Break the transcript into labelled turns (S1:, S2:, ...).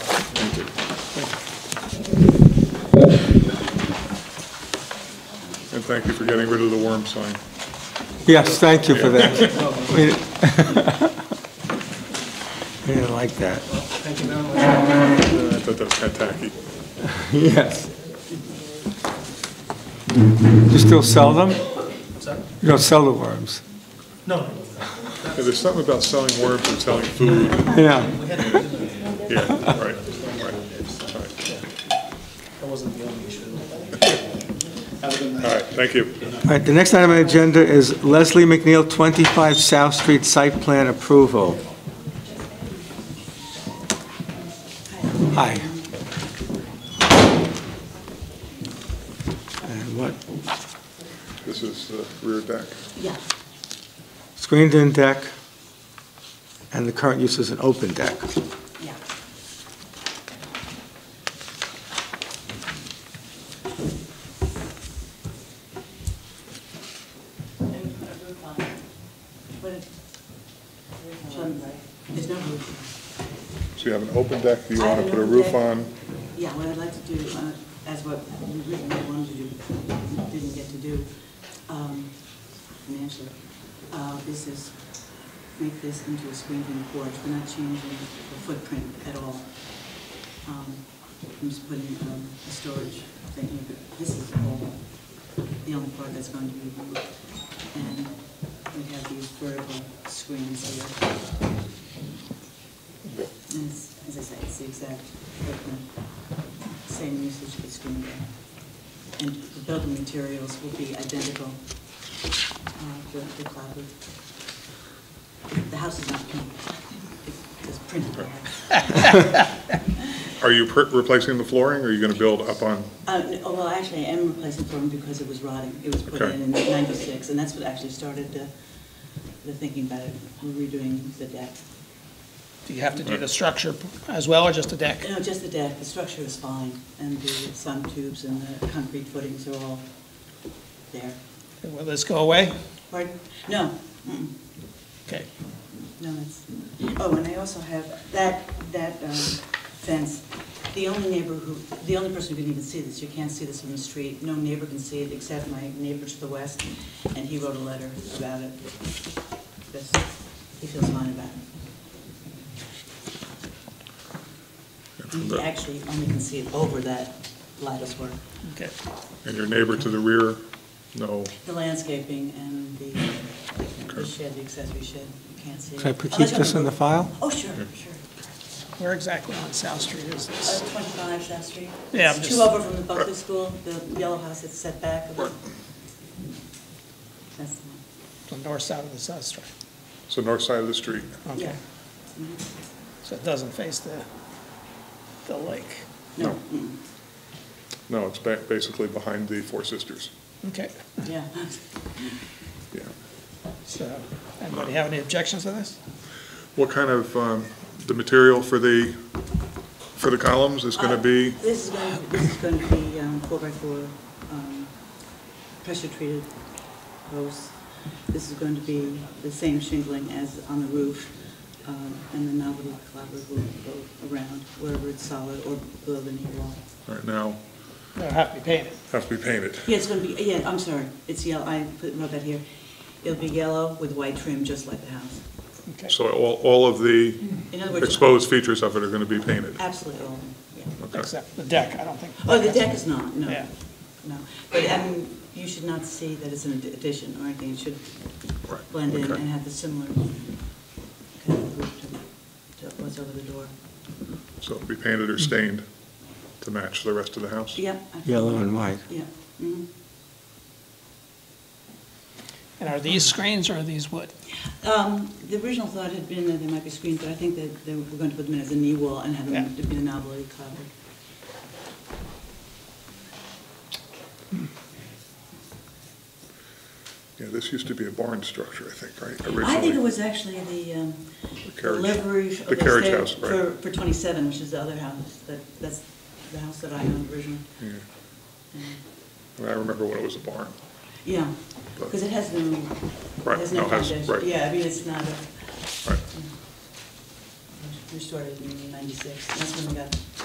S1: Thank you.
S2: And thank you for getting rid of the worm sign.
S1: Yes, thank you for that. We we didn't like that.
S2: I thought that was kind of tacky.
S1: Yes. You still sell them? You don't sell the worms?
S2: Yeah, There's something about selling worms and selling food. Yeah,
S1: Yeah,
S2: right, right, right.
S3: That wasn't the only issue.
S2: All right, thank you.
S1: all right, the next item on the agenda is Leslie McNeil, 25 South Street Site Plan Approval. Hi. And what,
S2: This is the rear deck.
S4: Yeah,
S1: screened-in deck, and the current use is an open deck.
S4: yeah. There's no roof.
S2: So you have an open deck, you
S4: I
S2: want
S4: have
S2: to
S4: an
S2: put a
S4: open
S2: roof
S4: deck.
S2: on,
S4: Yeah, what I'd like to do, uh, as what we originally wanted to do, but didn't get to do um, financially, uh, is is make this into a screened-in porch. We're not changing the footprint at all. Um, I'm just putting um, a storage thing here, but this is all, the only part that's going to be removed. And we have these vertical screens here. And it's, as I say, it's the exact footprint, same usage as screen door. And the building materials will be identical, uh, the, the clapboard. The house is not painted, it's just printed. on it.
S2: are you per- replacing the flooring, or are you going to build up on?
S4: Uh, n- oh, well, actually, I am replacing flooring because it was rotting, it was put
S2: Okay.
S4: in in ninety-six, and that's what actually started the, the thinking about it, We're redoing the deck.
S3: Do you have to do the structure as well, or just the deck?
S4: No, just the deck, the structure is fine, and the sun tubes and the concrete footings are all there.
S3: Will this go away?
S4: Pardon? No, mm-mm,
S3: Okay.
S4: no, it's, oh, and I also have that, that um, fence, the only neighbor who, the only person who can even see this, you can't see this from the street, no neighbor can see it except my neighbor to the west, and he wrote a letter about it. That's- He feels fine about it. And he actually only can see it over that lattice work.
S3: Okay.
S2: And your neighbor to the rear? No.
S4: The landscaping and the the shed, the accessory shed, you can't see. it.
S1: Can I put- keep
S4: Unless you
S1: this in the
S4: have a-
S1: file?
S4: Oh, sure, sure.
S3: Where exactly on South Street is
S4: Uh,
S3: this?
S4: 25 South Street.
S3: Yeah, I'm
S4: It's
S3: just-
S4: Two over from the Buckley School, the yellow house that's set back. a bit. That's the
S3: The north side of the South Street?
S2: It's the north side of the street.
S4: one.
S3: Okay.
S4: Yeah. Mhm.
S3: So it doesn't face the, the lake?
S4: No,
S2: No, it's ba- basically behind the Four Sisters.
S3: Okay.
S4: mm, yeah.
S2: Yeah.
S3: So, anybody have any objections to this?
S2: What kind of, um, the material for the, for the columns is going to be?
S4: Uh, This is going, this is going to be um, four by four, um, pressure treated posts. This is going to be the same shingling as on the roof, um, and the novelty clapboard will go around wherever it's solid or below the knee wall.
S2: All right, now,
S3: They'll have to be painted.
S2: have to be painted.
S4: Yeah, it's going to be, yeah, I'm sorry, it's yellow, I put, wrote that here. It'll be yellow with white trim, just like the house.
S3: Okay.
S2: So all, all of the
S4: In other words,
S2: exposed features of it are going to be painted.
S4: absolutely all, of them, yeah.
S2: Okay.
S3: Except the deck, I don't think.
S4: Oh, the deck is not, no,
S3: Yeah.
S4: no. But, I mean, you should not see that it's an addition or anything, it should
S2: Right,
S4: blend in
S2: okay.
S4: and have the similar kind of roof to, to what's over the door.
S2: So it'll be painted or stained to match the rest of the house?
S4: Yeah. I-
S1: Yellow and white.
S4: Yeah, mhm.
S3: And are these screens or are these wood?
S4: Um, the original thought had been that they might be screened, but I think that they were going to put them in as a knee wall and have them
S3: Yeah.
S4: to be the novelty clapboard.
S2: Yeah, this used to be a barn structure, I think, right?
S4: I think
S2: originally?
S4: it was actually the, um,
S2: The carriage-
S4: delivery of
S2: The
S4: the
S2: carriage
S4: stair
S2: house,
S4: for,
S2: right.
S4: for twenty-seven, which is the other house, that, that's the house that I owned originally.
S2: Yeah. I mean, I remember when it was a barn.
S4: Yeah, because it has no, it
S2: Right,
S4: has no
S2: no, it has-
S4: foundation.
S2: right.
S4: Yeah, I mean, it's not a,
S2: Right.
S4: we started in ninety-six, that's when we got